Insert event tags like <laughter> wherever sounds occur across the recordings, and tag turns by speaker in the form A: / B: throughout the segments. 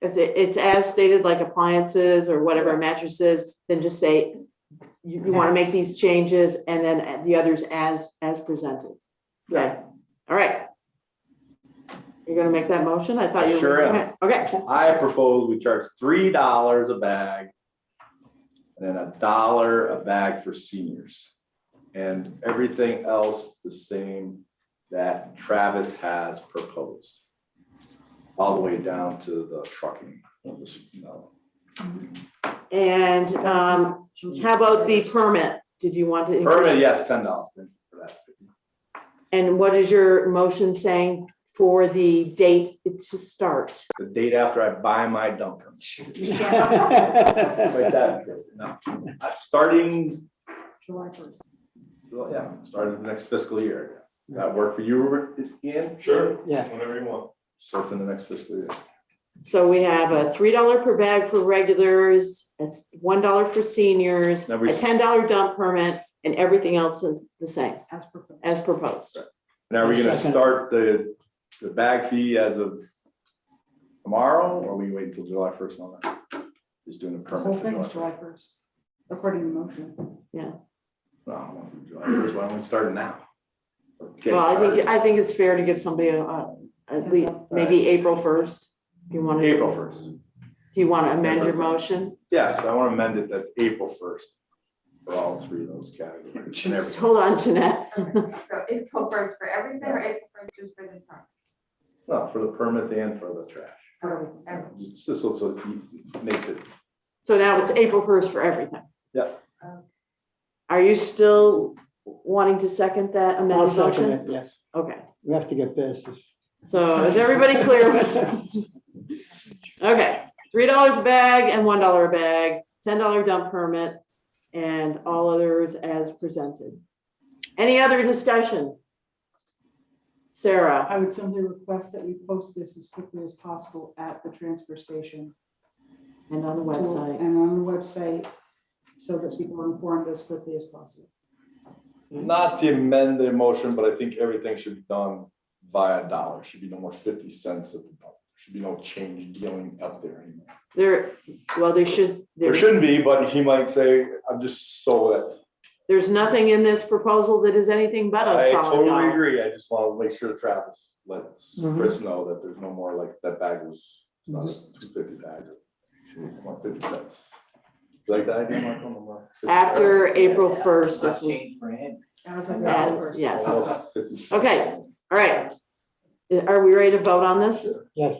A: If it- it's as stated, like appliances or whatever mattresses, then just say, you, you want to make these changes and then add the others as, as presented. Okay, all right. You're gonna make that motion? I thought you were.
B: Sure am.
A: Okay,
B: I propose we charge three dollars a bag. And then a dollar a bag for seniors. And everything else the same that Travis has proposed. All the way down to the trucking. of this, you know.
A: and, um, how about the permit? Did you want to? increase-
B: Permit, yes, ten dollars for that.
A: And what is your motion saying for the date to start?
B: The date after I buy my dumper. Like that, no. Uh, Starting,
C: July first.
B: well, yeah, starting the next fiscal year. Does That work for you, Robert, Ian?
D: Sure.
E: Yeah.
D: Whenever you want.
B: So it's in the next fiscal year.
A: So we have a three dollar per bag for regulars, it's one dollar for seniors,
B: Now we-
A: a ten dollar dump permit, and everything else is the same
C: As proposed.
A: as proposed.
B: And are we gonna
E: Second.
B: start the, the bag fee as of tomorrow, or we wait until July first on that? Just doing a
C: The
B: permit.
C: whole
B: till
C: thing is
B: July
C: July first, according to the motion.
B: 1st. No, I don't want to do July first, why don't we start it now? Okay.
A: Well, I think, I think it's fair to give somebody a, a- at least, maybe April first, if you want to,
B: April first,
A: if you want to amend your motion.
B: yes, I want to amend it, that's April first for all three of those categories. and
A: Just
B: everything.
A: Hold on, Jeanette.
F: Okay, Um, So April first for everything or April first just for the truck?
B: No, for the permits and for the trash.
F: For everything.
B: Just just looks like, it makes it,
A: So now it's April first for everything.
B: Yep.
A: Are you still wanting to second that <laughs>
E: I'll
A: amended
E: second
A: motion?
E: it, yes.
A: Okay.
E: We have to get past this.
A: So Oh, is everybody clear? Okay, three dollars a bag and one dollar a bag, ten dollar dump permit, and all others as presented. Any other discussion? Sarah,
C: I would simply request that we post this as quickly as possible at the transfer station.
A: and on the website,
C: And on the website, so that people are informed as quickly as possible.
B: not to amend the motion, but I think everything should be done via dollar, should be no more fifty cents at the pump. Should be no change dealing up there anymore.
A: there, well, there should,
B: There
A: there's,
B: shouldn't be, but he might say, I'm just so that.
A: there's nothing in this proposal that is anything but
B: I
A: a solid
B: totally
A: dollar.
B: agree, I just want to make sure Travis lets
A: Mm-hmm.
B: Chris know that there's no more like, that bag was, it's not
A: Mm-hmm.
B: a two fifty bag. it should be more Fifty cents. Like that idea, Michael? No more 50 cents.
A: After April first, if we-
C: As of
A: Yeah.
C: April 1st.
A: Yes.
B: Almost 50 Oh, cents.
A: Okay. all right. Are we ready to vote on this?
E: <laughs> Yes.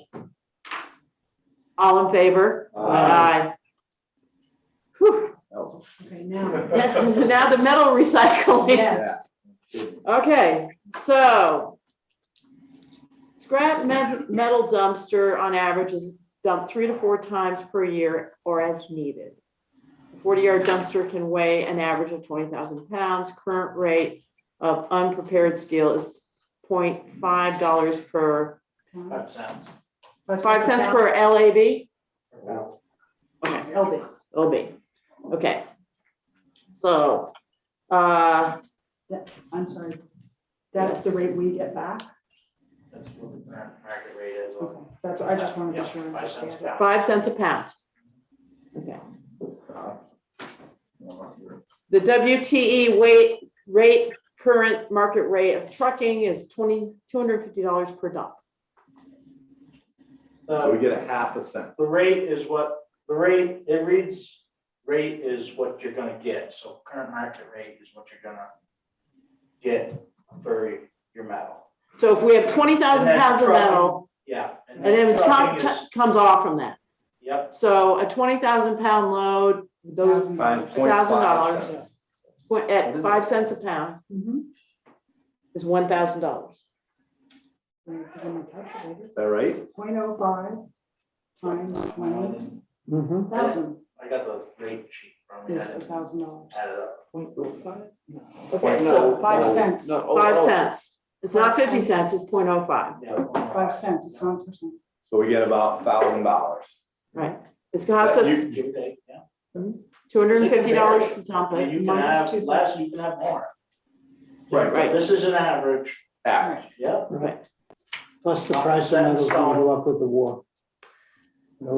A: All in favor?
B: Uh,
A: Whew.
B: that was
A: <laughs>
C: Okay, now.
A: Now the metal recycling.
C: Yes.
B: a good one.
A: Okay, so scrap me- metal dumpster on average is dumped three to four times per year or as needed. Forty-yard dumpster can weigh an average of twenty thousand pounds. Current rate of unprepared steel is 0.5 dollars per,
C: Five
D: cents.
A: five cents per LAB? Okay.
C: LB.
A: OB, okay. So, uh,
C: I'm sorry. That's the
A: Yes.
C: rate we get back?
D: That's what the current market rate is.
C: Okay, That's, I just wanted to be sure. I
D: Five cents
C: understand.
D: a pound.
A: five cents a pound. Okay.
B: Uh, no, you're-
A: The WTE weight rate, current market rate of trucking is twenty, two hundred fifty dollars per dump.
B: So uh, we
D: The,
B: get a half a cent.
D: the rate is what, the rate, it reads, rate is what you're gonna get, so current market rate is what you're gonna get for your metal,
A: So if we have twenty thousand
D: And then
A: pounds of
D: trucking.
A: metal,
D: yeah.
A: and then truck
D: trucking is-
A: comes off from that.
D: Yep,
A: So a twenty thousand pound load, those
C: Thousand
B: Fine,
C: dollars.
B: point five
A: $1,000.
B: cents.
A: went at five cents a pound
C: Mhm.
A: is one thousand dollars.
C: Let me put in my calculator.
B: Is that right?
C: Point oh five times twenty
E: Mhm.
C: thousand
D: I got the rate sheet from me, I
C: is a
D: didn't
C: thousand dollars.
D: add it up.
A: Okay,
C: So
B: oh
A: so
C: five cents,
A: five cents. It's not fifty cents, it's point oh five.
D: Yeah.
C: five cents, it's one percent.
B: So we get about thousand dollars.
A: It's cost us
D: You- you- yeah.
A: Two hundred and fifty dollars to dump
D: I mean,
A: it,
D: You can
A: minus
D: have
A: two.
D: less, you can have more.
B: Right,
A: right.
D: This is an average,
B: Average.
D: yep.
E: Plus the price of metal's gonna go up with the war.